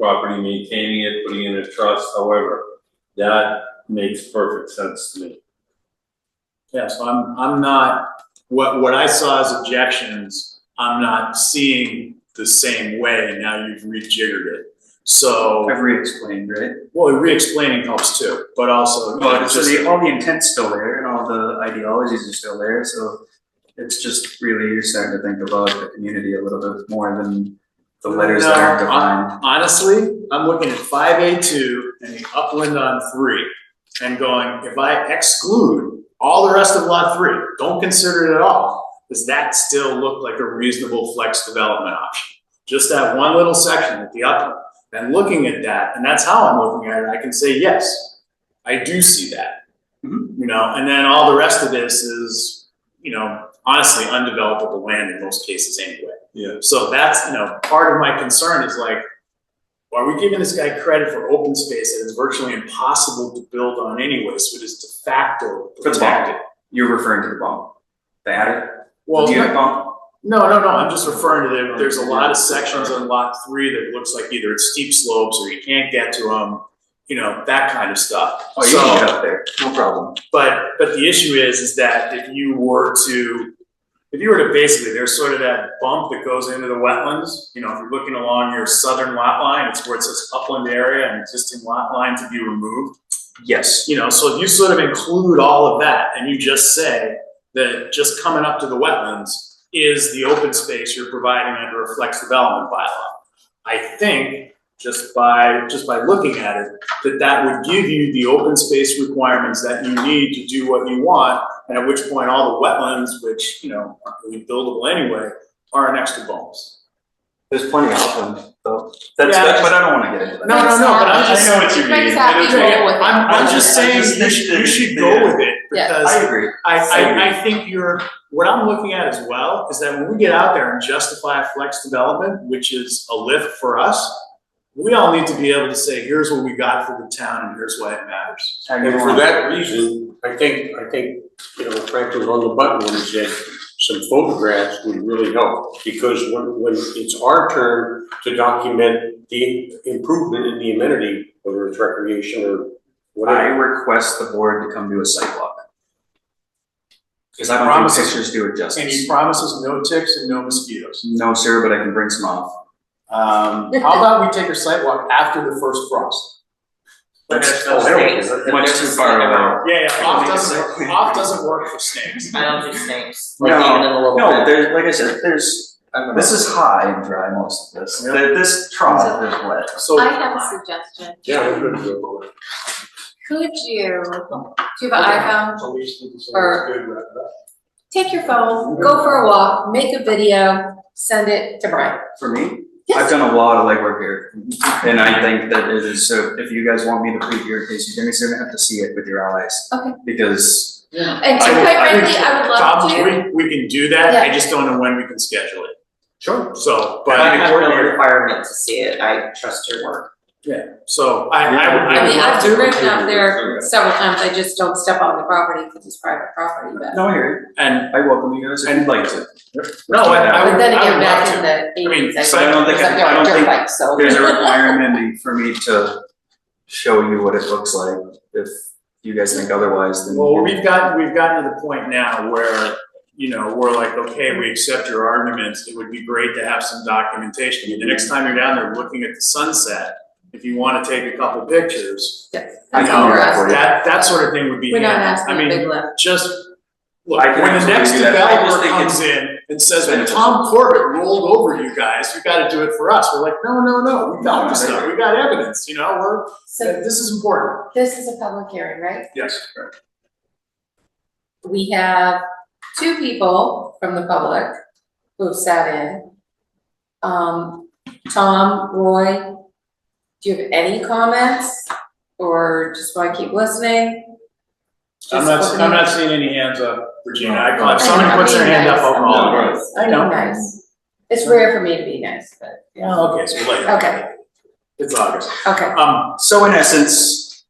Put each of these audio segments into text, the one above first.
property, maintaining it, putting it in a trust, however, that makes perfect sense to me. Yeah, so I'm, I'm not, what, what I saw as objections, I'm not seeing the same way, now you've rejiggered it. So, I've re-explained, right? well, re-explaining helps too, but also, Well, so just- the, all the intent's still there and all the ideologies are still there, so it's just really, you're starting to think about the community a little bit more than the letters that aren't No, defined. honestly, I'm looking at five A two and the upland on three and going, if I exclude all the rest of lot three, don't consider it at all, does that still look like a reasonable flex development option? Just that one little section at the upland, and looking at that, and that's how I'm looking at it, I can say, yes, I do see that. Mhm. You know, and then all the rest of this is, you know, honestly undevelopable land in most cases anyway. Yeah. So that's, you know, part of my concern is like, are we giving this guy credit for open space that is virtually impossible to build on anyway, so it is de facto That's protected? You're referring to the bomb, the adder, Well, the unit no, bomb? no, no, I'm just referring to there, there's a lot of sections on lot three that looks like either it's steep slopes or you can't get to them, you know, that kind of stuff. Oh, you So- can get up there, no problem. But, but the issue is, is that if you were to, if you were to basically, there's sort of that bump that goes into the wetlands. You know, if you're looking along your southern lot line, it's where it says upland area and existing lot line to be removed. Yes. You know, so if you sort of include all of that and you just say that just coming up to the wetlands is the open space you're providing under a flex development bylaw. I think just by, just by looking at it, that that would give you the open space requirements that you need to do what you want, and at which point all the wetlands, which, you know, aren't really buildable anyway, are an extra bonus. There's plenty of them, though. That's, Yeah, that's, but I don't wanna get into that. No, no, no, but I'm Mike's just. happy. I know what you mean. Mike's I'm, happy, I'm- go with it. I'm, just I saying, just you think should, that you should the- go with it, Yeah. because I agree. I, agree. I, I think you're, what I'm looking at as well is that when we get out there and justify a flex development, which is a lift for us, we all need to be able to say, here's what we got for the town and here's why it matters. And for that reason, I think, I think, you know, Frank was on the button when he said some photographs would really help. Because when, when it's our turn to document the improvement in the amenity, whether it's recreation or I whatever. request the board to come do a site walk. Cause I don't Promise. think pictures do it justice. And he promises no ticks and no mosquitoes. No, sir, but I can bring some off. Um, how about we take a site walk after the first frost? That's Oh, I don't care. much too far away. Yeah, yeah, off Make a doesn't, site- off doesn't work for snakes. I don't do snakes. No, Like, even in a little No, bit. there's, like I said, there's, this is high and dry, most of this. Yep. Th- This trough is wet. So, I have a suggestion. Yeah, I'm gonna go. Could you, do you have an iPhone? Or- Take your phone, go for a walk, make a video, send it to Brian. For me, I've Yes, done a lot of legwork here, and I think that it is, so if you guys want me to plead your case, you're gonna- you're gonna have to see it with your eyes. Okay. Because, and to I would- quite I would- frankly, I would Tom, love to. we, we can do that, I Yeah. just don't know when we can schedule it. Sure. So, I but, have no requirement to see it, I trust your work. so I, I, would- I I would mean, love I've to. driven up there several times, I just don't step on the property because it's private property, but. no, I hear And, you. I welcome you guys if you'd like to. no, I, I would, But then I again, would back in love to. the I mean, eighties, I so I don't think- was up there I on don't dirt think bikes, so. There's a requirement in- for me to show you what it looks like. If you guys think otherwise, then. Well, we've gotten, we've gotten to the point now where, you know, we're like, okay, we accept your arguments, it would be great to have some documentation. The next time you're down there looking at the sunset, if you wanna take a couple pictures, Yes, you That's know, all we're asking. that, that sort of thing would be We're not handy. I asking a mean, big lift. just, look, I can when the absolutely next do that. I developer just think it's comes in and says, well, beneficial. Tom Corbett rolled over you guys, you gotta do it for us, we're like, no, no, no, we got No, this I stuff, agree. we got evidence, you know, we're, So this is important. this is a public hearing, right? Yes. we have two people from the public who have sat in. Um, Tom, Roy, do you have any comments or just wanna keep listening? I'm Just not, opening- I'm not seeing any hands up, Regina, I I call, know, if somebody I'm puts their being hand up, nice, I'll I'm call. No, being right. nice, I I'm know. being nice. It's rare for me to be nice, but, yeah, Oh, okay, so later. Okay. It's August. okay. Um, So in essence,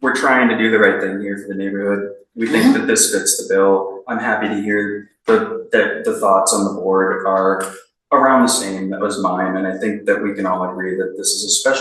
we're trying to do the right thing here for the neighborhood. We think that this fits the bill. I'm happy to hear the, the, the thoughts on the board are around the same, that was mine, and I think that we can all agree that this is a special